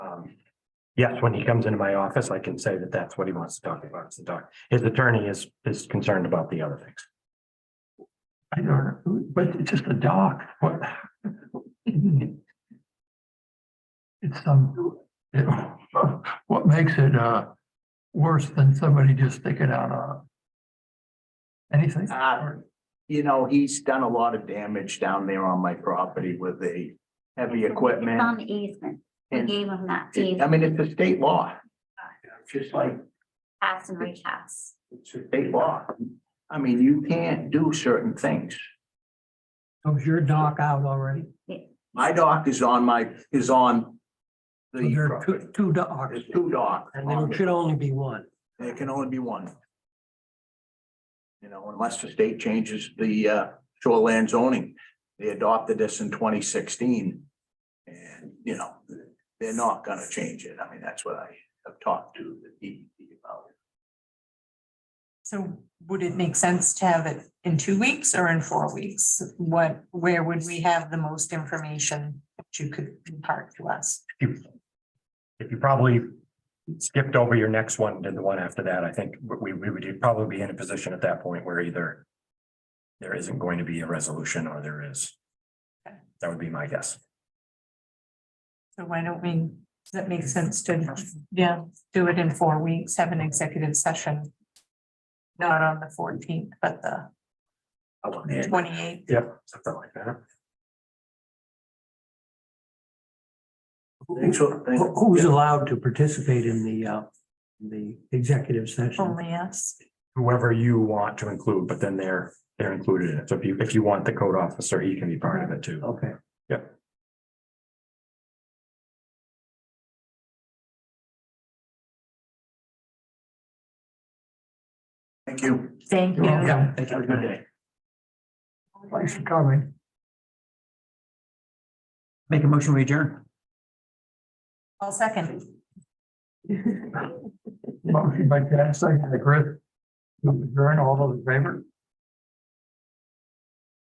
Um, yes, when he comes into my office, I can say that that's what he wants to talk about. It's the doc. His attorney is, is concerned about the other things. I don't, but it's just a dock, what? It's some, it, what makes it, uh, worse than somebody just sticking out a anything? Ah, Uh, You know, he's done a lot of damage down there on my property with the heavy It's on equipment. the easement. We And gave him that it- I deed, mean, it's a state law. Just like pass and recast. it's a state law. I mean, you can't do certain things. Was your dock out already? My dock is on my, is on So There are the, two, two docks, there's two docks. and there should only be one. There can only be one. You know, unless the state changes the uh, shoreland zoning. They adopted this in twenty sixteen. And, you know, they're not gonna change it. I mean, that's what I have talked to the DEP about. So would it make sense to have it in two weeks or in four weeks? What, where would we have the most information that you could impart to us? you- If you probably skipped over your next one and the one after that, I think we, we would probably be in a position at that point where either there isn't going to be a resolution or there is. That would be my guess. So why don't we, does that make sense to, yeah, do it in four weeks, have an executive session? Not on the fourteenth, but the twenty-eighth. Yep, something like that. Thanks for- Who- Who's allowed to participate in the, uh, the executive session? Only us. Whoever you want to include, but then they're, they're included in it. So if you, if you want the code officer, he can be part of it too. Okay. Thank you. Thank you. Yeah. Have a good day. Thanks for coming. Make a motion, we adjourn. I'll second. Motion by Dennis, second by Chris. Adjourn, all those in favor?